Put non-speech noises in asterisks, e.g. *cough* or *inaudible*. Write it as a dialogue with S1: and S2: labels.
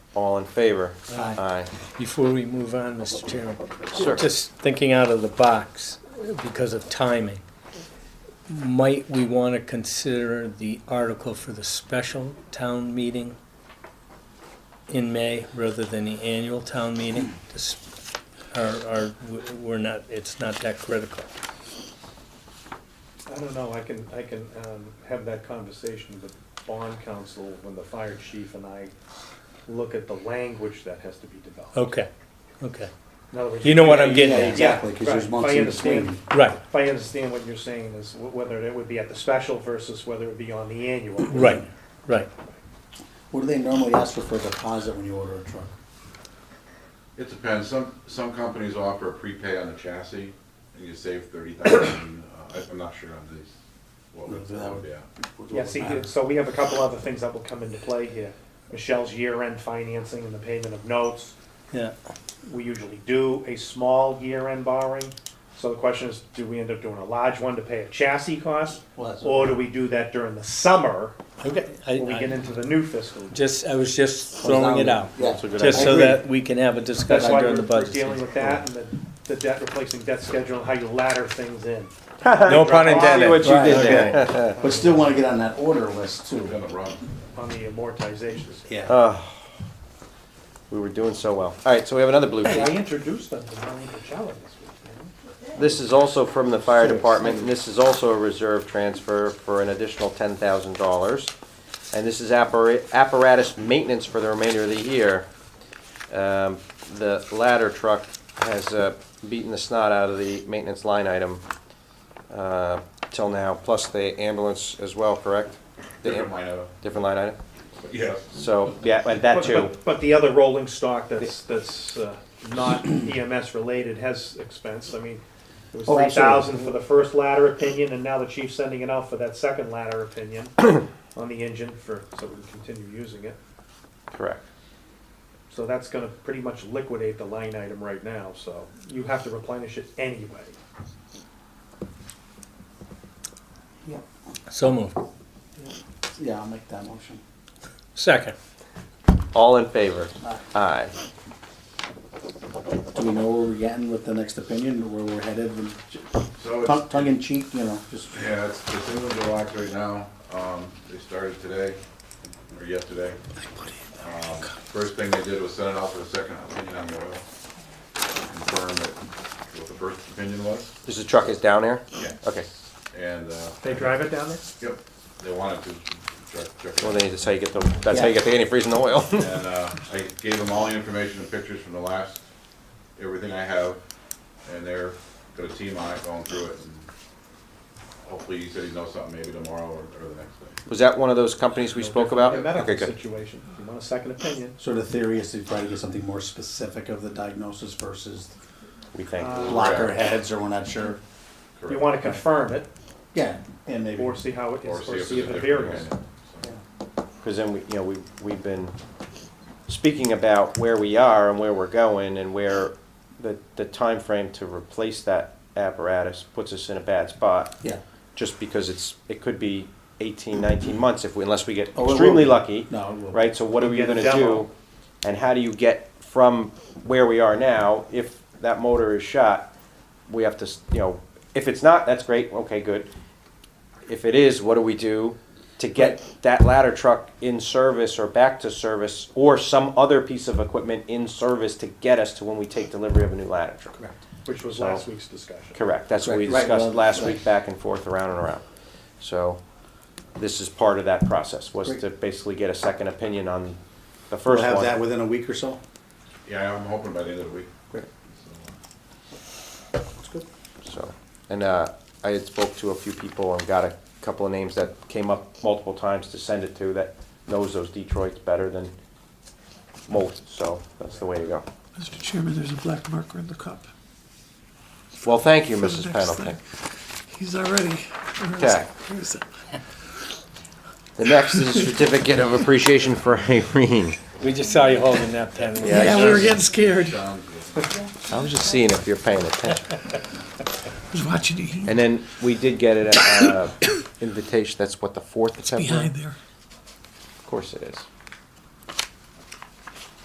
S1: All in favor?
S2: Aye.
S1: Aye.
S2: Before we move on, Mr. Chairman,
S1: Sure.
S2: just thinking out of the box because of timing, might we want to consider the article for the special town meeting in May rather than the annual town meeting? Just- Or, or we're not, it's not that critical.
S3: I don't know, I can, I can um, have that conversation with bond counsel when the fire chief and I look at the language that has to be developed.
S2: Okay, okay,
S3: In other words,
S2: You know what I'm getting
S3: Yeah,
S2: at.
S4: Exactly, 'cause there's
S3: right.
S4: months
S3: If I
S4: in
S3: understand-
S4: between.
S2: right,
S3: If I understand what you're saying is wh- whether it would be at the special versus whether it be on the annual.
S2: right, right.
S4: What do they normally ask for for a deposit when you order a truck?
S5: It depends. Some, some companies offer a prepay on the chassis, and you save thirty thousand. uh, I'm not sure on these, what would, that would be at.
S3: Yeah, see, so we have a couple other things that will come into play here. Michelle's year-end financing and the payment of notes.
S2: Yeah,
S3: We usually do a small year-end borrowing. So the question is, do we end up doing a large one to pay a chassis cost?
S4: Well, that's-
S3: Or do we do that during the summer
S2: okay. I-
S3: when we get
S2: I
S3: into the new fiscal? year?
S2: Just, I was just throwing it out,
S4: Yeah.
S1: That's a good
S2: just
S4: I
S2: so
S4: agree.
S2: that we can have a
S3: That's
S2: discussion
S3: why
S2: during
S3: we're
S2: the
S3: we're
S2: budget.
S3: dealing with that and the, the debt replacing debt schedule and how you ladder things in.
S2: No pun intended.
S1: See what you did
S4: Right,
S1: there.
S4: *laughs* But still wanna get on that order list too.
S5: We're gonna run.
S3: on the amortizations.
S4: Yeah.
S1: Ah, We were doing so well. All right, so we have another blue
S3: I
S1: sheet.
S3: introduced them to Marlene Pachella this week.
S1: This is also from the fire department, and this is also a reserve transfer for an additional ten thousand dollars. And this is appara- apparatus maintenance for the remainder of the year. Um, The ladder truck has uh, beaten the snot out of the maintenance line item uh, till now, plus the ambulance as well, correct? The
S5: Different
S1: am-
S5: line item.
S1: Different line item?
S5: But Yes.
S1: So, yeah, and that
S3: But-
S1: too.
S3: but- But the other rolling stock that's, that's uh, not EMS related has expense, I mean, it was
S4: Oh,
S3: three
S4: absolutely.
S3: thousand for the first ladder opinion, and now the chief's sending it out for that second ladder
S4: *coughs*
S3: opinion on the engine for, so we can continue using it.
S1: Correct.
S3: So that's gonna pretty much liquidate the line item right now, so you have to replenish it anyway.
S2: So moved.
S4: Yeah, I'll make that motion.
S2: Second.
S1: All in favor?
S4: Aye.
S1: Aye.
S4: Do we know where we're getting with the next opinion, where we're headed?
S5: So it's,
S4: Tongue, tongue in cheek, you know, just,
S5: yeah, it's, it's in the blocks right now. Um, they started today, or yesterday. Um, First thing they did was send it out for a second opinion on the oil. Confirm that what the first opinion was.
S1: This is truck is down here?
S5: Yeah.
S1: Okay.
S5: And, uh,
S3: They drive it down there?
S5: yep, they wanted to check, check. it
S1: Well,
S5: out.
S1: then that's how you get the, that's how you get the antifreeze in the oil. *laughs*
S5: And uh, I gave them all the information and pictures from the last, everything I have, and they're got a team on it going through it. and Hopefully, he said he knows something maybe tomorrow or, or the next day.
S1: Was that one of those companies we spoke about?
S3: The
S1: Okay,
S3: medical
S1: good.
S3: situation, if you want a second opinion,
S4: so the theory is to try to get something more specific of the diagnosis versus
S1: We think.
S4: lock our heads or we're not sure.
S3: you
S5: Correct.
S3: wanna confirm it,
S4: Yeah, and maybe.
S3: Or see how it
S5: Or
S3: is, or
S5: if
S3: see if
S5: there's a
S3: it
S5: different
S3: varies.
S5: opinion. So,
S4: Yeah.
S1: Because then, we, you know, we, we've been speaking about where we are and where we're going and where the, the timeframe to replace that apparatus puts us in a bad spot.
S4: Yeah,
S1: Just because it's, it could be 18, 19 months if we, unless we get
S4: Oh, it will
S1: extremely
S4: be.
S1: lucky.
S4: no, it will.
S1: right? So what are you
S3: Get a
S1: gonna
S3: demo.
S1: do? And how do you get from where we are now, if that motor is shot, we have to, s- you know, if it's not, that's great, okay, good. If it is, what do we do to get that ladder truck in service or back to service or some other piece of equipment in service to get us to when we take delivery of a new ladder truck?
S4: Correct.
S3: which was
S1: So-
S3: last week's discussion.
S1: Correct, that's what we
S4: Correct, right,
S1: discussed
S4: well,
S1: last
S4: right.
S1: week, back and forth, around and around. So, this is part of that process, was
S4: Great.
S1: to basically get a second opinion on the
S4: We'll
S1: first
S4: have that
S1: one.
S4: within a week or so.
S5: Yeah, I'm hoping by the end of the week.
S4: Great.
S5: So,
S4: That's good.
S1: So, and, uh, I had spoke to a few people and got a couple of names that came up multiple times to send it to that knows those Detroits better than most, so that's the way to go.
S6: Mr. Chairman, there's a black marker in the cup.
S1: Well, thank you,
S6: for the
S1: Mrs.
S6: next
S1: Pendleton.
S6: thing. He's already. *laughs*
S1: Okay.
S6: Here's it.
S1: The next is a certificate of appreciation for Irene.
S2: We just saw you holding that pen.
S1: Yeah,
S6: Yeah, we were getting scared. I
S5: Sounds good.
S1: I was just seeing if you're paying attention.
S6: was watching you.
S1: And then we did get an uh, *coughs* invitation, that's what, the 4th of
S6: It's behind
S1: September?
S6: there.
S1: Of course it is.